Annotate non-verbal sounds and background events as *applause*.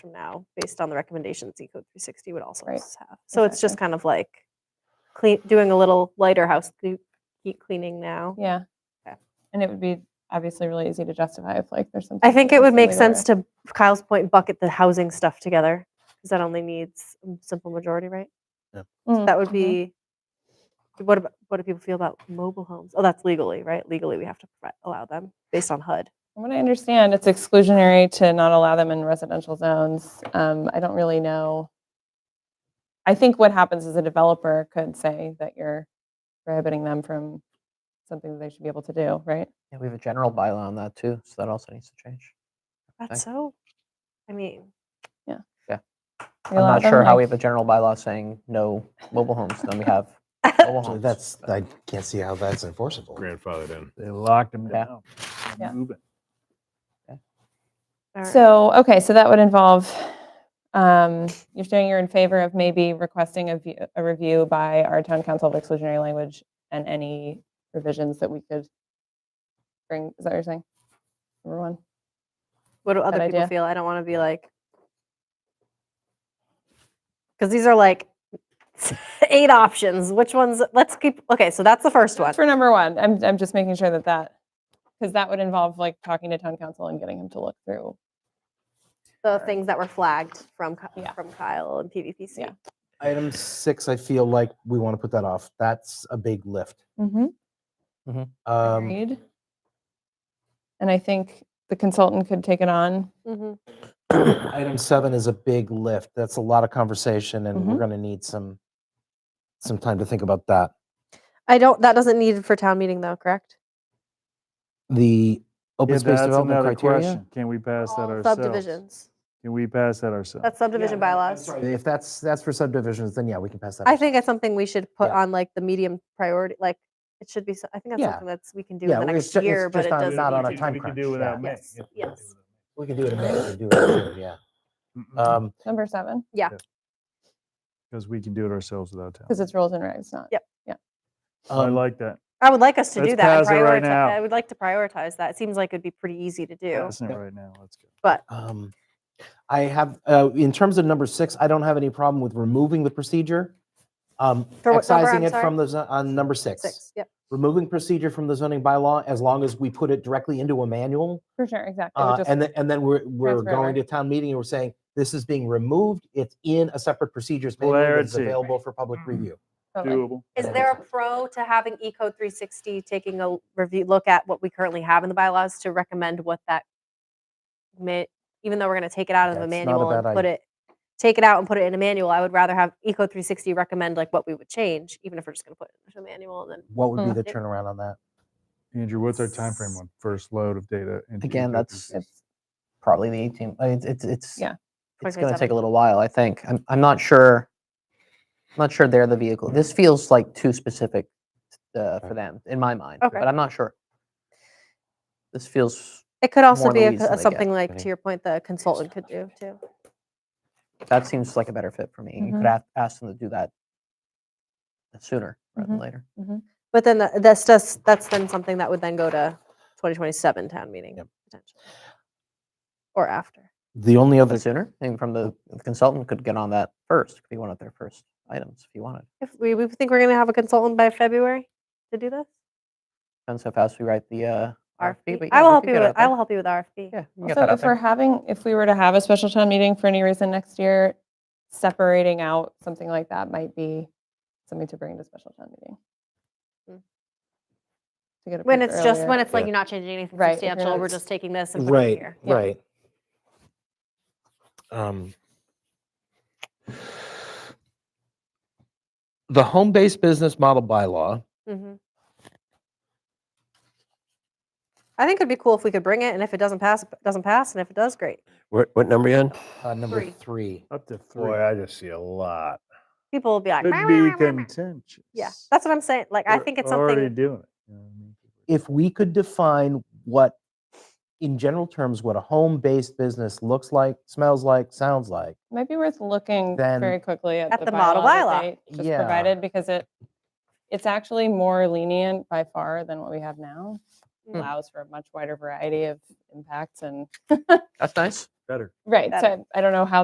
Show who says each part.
Speaker 1: from now based on the recommendations Eco 360 would also
Speaker 2: Right.
Speaker 1: s- have. So it's just kind of like clean, doing a little lighter house cle- heat cleaning now.
Speaker 2: Yeah.
Speaker 1: Okay.
Speaker 2: And it would be obviously really easy to justify if like there's something.
Speaker 1: I think it would make sense to Kyle's point, bucket the housing stuff together because that only needs a simple majority, right?
Speaker 2: to,
Speaker 1: That would be,
Speaker 2: Mm-hmm.
Speaker 1: what about, what do people feel about mobile homes? Oh, that's legally, right? Legally, we have to pro- allow them based on HUD.
Speaker 2: Mm-hmm. From what I understand, it's exclusionary to not allow them in residential zones. Um, I don't really know. I think what happens is a developer could say that you're prohibiting them from something that they should be able to do, right?
Speaker 3: Yeah, we have a general bylaw on that too, so that also needs to change.
Speaker 1: That's
Speaker 3: Thanks.
Speaker 1: so, I mean,
Speaker 2: You
Speaker 3: I'm
Speaker 2: allow
Speaker 3: not
Speaker 2: them,
Speaker 3: sure how we
Speaker 2: like-
Speaker 3: have a general bylaw saying no mobile homes, then we have mobile
Speaker 4: So
Speaker 3: homes.
Speaker 4: that's, I can't see how that's enforceable.
Speaker 5: grandfathered in.
Speaker 6: They locked them
Speaker 3: Yeah.
Speaker 6: down.
Speaker 2: Yeah.
Speaker 6: Moving.
Speaker 1: all right.
Speaker 2: So, okay, so that would involve, um, you're saying you're in favor of maybe requesting a, view, a review by our town council of exclusionary language and any revisions that we could bring. Is that what you're saying? Number one.
Speaker 1: what do other
Speaker 2: Good
Speaker 1: people
Speaker 2: idea.
Speaker 1: feel? I don't want to be like, because these are like *laughs* eight options. Which ones? Let's keep. Okay, so that's the first one.
Speaker 2: That's for number one. I'm, I'm just making sure that that, because that would involve like talking to town council and getting him to look through.
Speaker 1: The things that were flagged from Ky-
Speaker 2: Yeah.
Speaker 1: from Kyle and PVPC.
Speaker 2: Yeah.
Speaker 4: Item six, I feel like we want to put that off. That's a big lift.
Speaker 2: Mm-hmm.
Speaker 4: Um,
Speaker 2: Agreed. And I think the consultant could take it on.
Speaker 1: hmm
Speaker 4: *clears throat* item seven is a big lift. That's a lot of conversation and
Speaker 1: Mm-hmm.
Speaker 4: we're going to need some, some time to think about that.
Speaker 1: I don't. That doesn't need for town meeting though, correct?
Speaker 4: The open
Speaker 6: Yeah,
Speaker 4: space
Speaker 6: that's
Speaker 4: development
Speaker 6: another
Speaker 4: criteria.
Speaker 6: question. Can we pass that
Speaker 1: All
Speaker 6: ourselves?
Speaker 1: subdivisions.
Speaker 6: Can we pass that ourselves?
Speaker 1: That's subdivision bylaws.
Speaker 4: If that's, that's for subdivisions, then yeah, we can pass that.
Speaker 1: I
Speaker 4: off.
Speaker 1: think it's something we should put
Speaker 4: Yeah.
Speaker 1: on like the medium priority. Like it should be. so- I think that's
Speaker 4: Yeah.
Speaker 1: something that's we can do
Speaker 4: Yeah,
Speaker 1: in the
Speaker 4: well,
Speaker 1: next
Speaker 4: it's ju- it's
Speaker 1: year, but
Speaker 4: just
Speaker 1: it
Speaker 4: on-
Speaker 1: doesn't.
Speaker 4: not
Speaker 1: need
Speaker 4: on a
Speaker 1: to-
Speaker 4: time
Speaker 6: We could
Speaker 4: crunch,
Speaker 6: do
Speaker 4: yeah.
Speaker 6: without May.
Speaker 1: Yes,
Speaker 6: if
Speaker 1: yes.
Speaker 4: We
Speaker 6: we could do without
Speaker 4: can do it in May, we can do it in June, yeah.
Speaker 6: May.
Speaker 4: Um,
Speaker 2: Number seven,
Speaker 6: Uh, Because we can do it ourselves without town.
Speaker 2: because it's rules and regs, not.
Speaker 6: I
Speaker 4: um,
Speaker 6: like that.
Speaker 1: I would like us to do
Speaker 6: Let's
Speaker 1: that. and
Speaker 6: pass it right
Speaker 1: prioritize-
Speaker 6: now.
Speaker 1: I would like to prioritize that. It seems like it'd be pretty easy to do.
Speaker 6: Passing it right now. Let's go.
Speaker 4: Um, I have, uh, in terms of number six, I don't have any problem with removing the procedure. Um,
Speaker 1: For what number? I'm
Speaker 4: excising it
Speaker 1: sorry?
Speaker 4: from the, zo- on number six.
Speaker 1: Six. Yep.
Speaker 4: Removing procedure from the zoning bylaw as long as we put it directly into a manual.
Speaker 2: For sure, exactly. It would
Speaker 4: Uh,
Speaker 2: just-
Speaker 4: and then, and then we're, we're
Speaker 2: transfer it
Speaker 4: going
Speaker 2: over.
Speaker 4: to town meeting and we're saying, this is being removed. It's in a separate procedures manual that's
Speaker 6: Clarity.
Speaker 4: available for public review.
Speaker 2: totally.
Speaker 6: Doable.
Speaker 1: Is there a pro to having Eco 360 taking a review look at what we currently have in the bylaws to recommend what that ma- even though we're going to take it out of the
Speaker 4: That's not a
Speaker 1: manual and
Speaker 4: bad
Speaker 1: put
Speaker 4: idea.
Speaker 1: it take it out and put it in a manual, I would rather have Eco 360 recommend like what we would change, even if we're just going to put it in a manual and then
Speaker 4: What would be
Speaker 2: Hmm.
Speaker 4: the turnaround on that?
Speaker 6: Andrew, what's our time frame on first load of data? into
Speaker 3: Again,
Speaker 6: Ecotech?
Speaker 3: that's probably the 18, uh, it's, it's, it's.
Speaker 2: Yeah.
Speaker 3: It's gonna
Speaker 1: 2027.
Speaker 3: take a little while, I think. I'm, I'm not sure, I'm not sure they're the vehicle. This feels like too specific uh, for them, in my mind.
Speaker 1: Okay.
Speaker 3: But I'm not sure. This feels,
Speaker 1: it could also
Speaker 3: More
Speaker 1: be a,
Speaker 3: Louise than
Speaker 1: co-
Speaker 3: they get,
Speaker 1: something like
Speaker 3: I
Speaker 1: to your point the consultant could do too.
Speaker 3: that seems like a better fit for me. You could a- ask them to do that sooner rather than
Speaker 2: Mhm.
Speaker 3: later.
Speaker 1: But then the- that's just that's then something that would then go to 2027 town meeting
Speaker 4: Yep.
Speaker 1: potentially or after.
Speaker 4: The only
Speaker 3: But
Speaker 4: other,
Speaker 3: sooner, and from the the consultant could get on that first, could be one of their first items if you wanted.
Speaker 1: If we, we think we're going to have a consultant by February to do this?
Speaker 3: Depends how fast we write the uh, RFP. but
Speaker 1: I
Speaker 3: yeah,
Speaker 1: will
Speaker 3: we
Speaker 1: help
Speaker 3: could
Speaker 1: you
Speaker 3: get
Speaker 1: with,
Speaker 3: out
Speaker 1: I
Speaker 3: there.
Speaker 1: will help you with RFP.
Speaker 3: Yeah. we can get
Speaker 2: So
Speaker 3: that out
Speaker 2: if we're
Speaker 3: there.
Speaker 2: having, if we were to have a special town meeting for any reason next year, separating out something like that might be something to bring to special town meeting.
Speaker 1: Mm.
Speaker 2: To get
Speaker 1: When
Speaker 2: approved
Speaker 1: it's just, when
Speaker 2: earlier.
Speaker 1: it's like
Speaker 4: Yeah.
Speaker 1: you're not changing anything
Speaker 2: Right, if you're
Speaker 1: substantial,
Speaker 2: not-
Speaker 1: we're just taking this and putting it
Speaker 4: right,
Speaker 1: here.
Speaker 2: Yeah.
Speaker 4: right. Um, The home-based business model bylaw,
Speaker 1: Mhm. I think it'd be cool if we could bring it and if it doesn't pass, it doesn't pass. And if it does, great.
Speaker 7: What, what number you on?
Speaker 4: uh, number
Speaker 1: Three.
Speaker 4: three.
Speaker 6: Up to three.
Speaker 5: Boy, I just see a lot.
Speaker 1: People will be like,
Speaker 6: Could
Speaker 1: "Wah, wah,
Speaker 6: be
Speaker 1: wah, wah, wah."
Speaker 6: contentious.
Speaker 1: yeah, that's what I'm saying. Like, I
Speaker 6: We're
Speaker 1: think it's
Speaker 6: Already
Speaker 1: something,
Speaker 6: doing it. you know what I mean?
Speaker 4: if we could define what, in general terms, what a home-based business looks like, smells like, sounds like.
Speaker 2: Might be worth looking
Speaker 4: Then-
Speaker 2: very quickly at.
Speaker 1: At the model
Speaker 2: that
Speaker 1: bylaw.
Speaker 2: they Just
Speaker 4: Yeah.
Speaker 2: provided because it, it's actually more lenient by far than what we have now.
Speaker 1: Mm.
Speaker 2: Allows for a much wider variety of impacts and
Speaker 3: That's nice.
Speaker 5: better.
Speaker 2: Right.
Speaker 1: Better.
Speaker 2: So I I don't know how